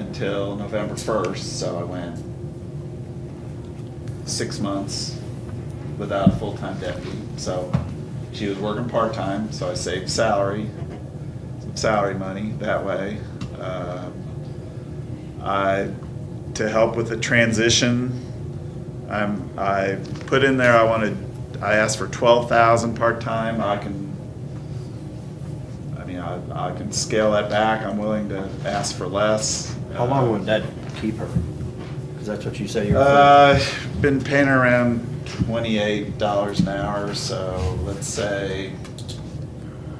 until November first, so I went six months without a full-time deputy. So she was working part-time, so I saved salary, some salary money that way. Um, I, to help with the transition, I'm, I put in there, I wanted, I asked for twelve thousand part-time, I can, I mean, I, I can scale that back, I'm willing to ask for less. How long would that keep her? Because that's what you say you're. Uh, been paying her around twenty-eight dollars an hour, so let's say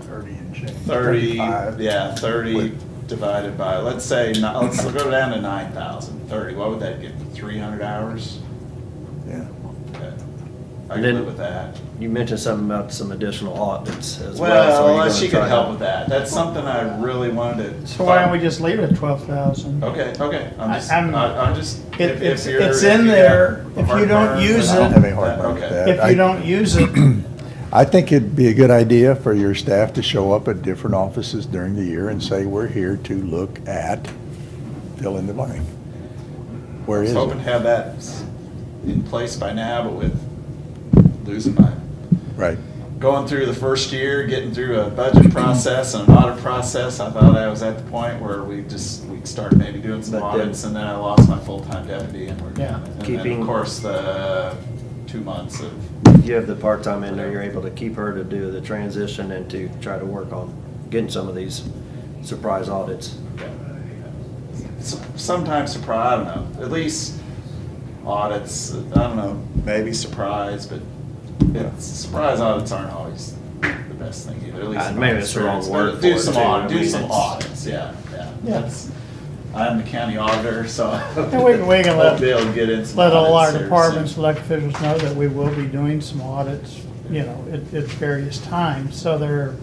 Thirty and change. thirty, 35. yeah, thirty With- divided by, let's say, ni- let's go down to nine thousand, thirty, what would that get, three hundred hours? Yeah. Okay. I And can then- live with that. You mentioned something about some additional audits as well. so are you Well, uh, gonna she try could to- help with that, that's something I really wanted to. So why don't we just leave it at twelve thousand? Okay, okay, I'm I- just, I'm- I- I'm just. It- if- if it's- you're- it's if in you have there. If you don't heartburn, then use it- I'll- I don't have any heartburn with okay. that. If you don't use it, I think it'd be a good idea for your staff to show up at different offices during the year and say, we're here to look at, fill in the blank. Where I is was it? hoping to have that s- in place by now, but with losing my, Right. going through the first year, getting through a budget process and an audit process, I thought I was at the point where we just, we started maybe doing some But then- audits, and then I lost my full-time deputy, and we're, Yeah. and then, Keeping- of course, the two months of You have the part-time in there, you're able to keep her to do the transition and to try to work on getting some of these surprise audits. S- sometimes surprise. I don't know. At least audits. I don't know. Maybe surprise, but it's, surprise audits aren't always the best thing either. At least Uh, in my maybe it's the wrong experience. word But for Do it, some too. audit. I Do mean, some it's- audits. Yeah, yeah. Yeah. That's. I'm the county auditor, so. And we can- we can let- We'll be able to get in some let all our audits here departments, soon. elected officials know that we will be doing some audits, you know, at, at various times, so there,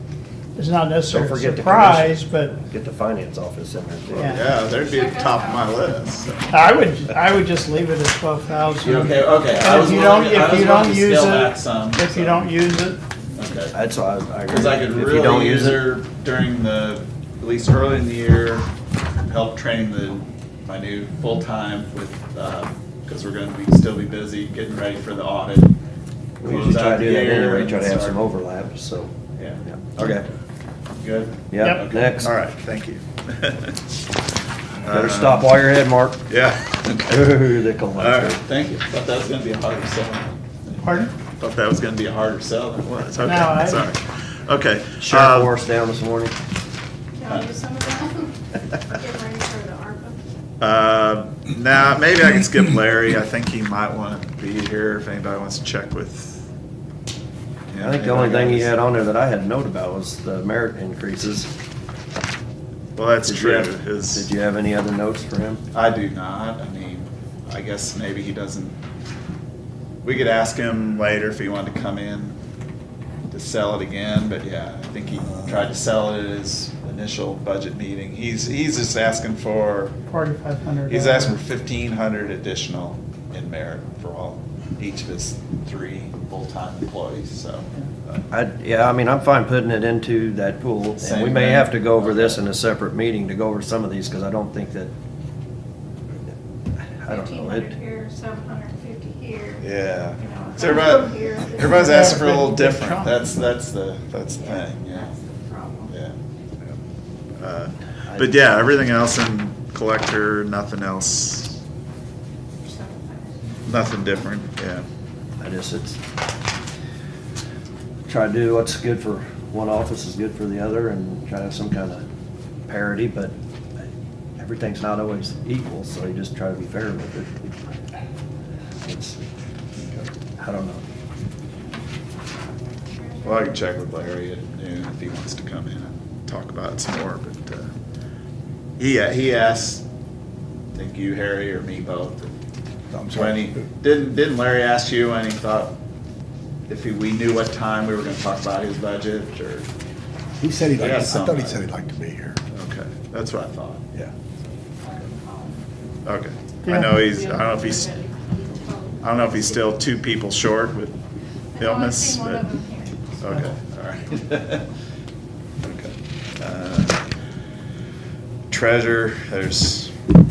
it's not necessarily a forget the surprise, but Get the finance office in there too. Yeah. Yeah, they'd be at the top of my list. so. I would, I would just leave it at twelve thousand. Okay, okay. I And was if you willing don't, to- I if was you willing don't to use scale back some, it, if you so. don't use it, Okay. That's why I, I agree. Because I could If you don't really use it- her during the, at least early in the year, help train the, my new full-time with, because we're gonna be, still be busy getting ready for the audit. We Close usually try out to the do that year anyway, and try to have start- some overlap, so. Yeah, yeah. Okay, good? yeah, Yep. next. All right, thank you. Better stop while you're ahead, Mark. Yeah. Ooh, they come Uh, All like right, that. thank you. Thought that was gonna be a harder sell. pardon? Thought that was gonna be a harder sell than it was. No, I- Okay, sorry. Okay. Sheriff um, wore us down this morning. Can I do some of that? Get ready for the ARPA. Uh, Now, maybe I can skip Larry. I think he might want to be here if anybody wants to check with. I think the only thing he had on there that I had a note about was the merit increases. Well, that's Did you true. have- His, Did you have any other notes for him? I do not. I mean, I guess maybe he doesn't. We could ask him later if he wanted to come in to sell it again, but yeah, I think he tried to sell it at his initial budget meeting. He's, he's just asking for, Forty-five hundred. he's asking for fifteen hundred additional in merit for all, each of his three full-time employees, so. uh, I, yeah, I mean, I'm fine putting it into that pool, and we Same may thing. have to go over this in a separate meeting to go over some of these, because I don't think that, I don't know, it, 1,500 here, 750 here. Yeah. You know, So everybody, here, this- everybody's asking for a little Big- big different. chunk. That's, that's the, that's the Yeah, thing, yeah, That's the problem. yeah. Uh, But yeah, everything else in collector, nothing else, For 750. nothing different, yeah. I just, it's, try to do what's good for one office is good for the other, and try to have some kind of parity, but everything's not always equal, so you just try to be fair with it. It's, I don't know. Well, I can check with Larry at noon if he wants to come in and talk about it some more, but, uh, he, uh, he asked, I think you, Harry, or me both, I'm when he, sorry. didn't, didn't Larry ask you when he thought if he- we knew what time we were gonna talk about his budget, or? He said he'd like, Yeah, I thought he somebody. said he'd like to be here. Okay, that's what I thought, Yeah. okay. I Yeah. know he's, I don't know if he's, I don't know if he's still two people short with No, I've illness, seen one but, of them here. okay, all right. Okay. Uh, Treasure, there's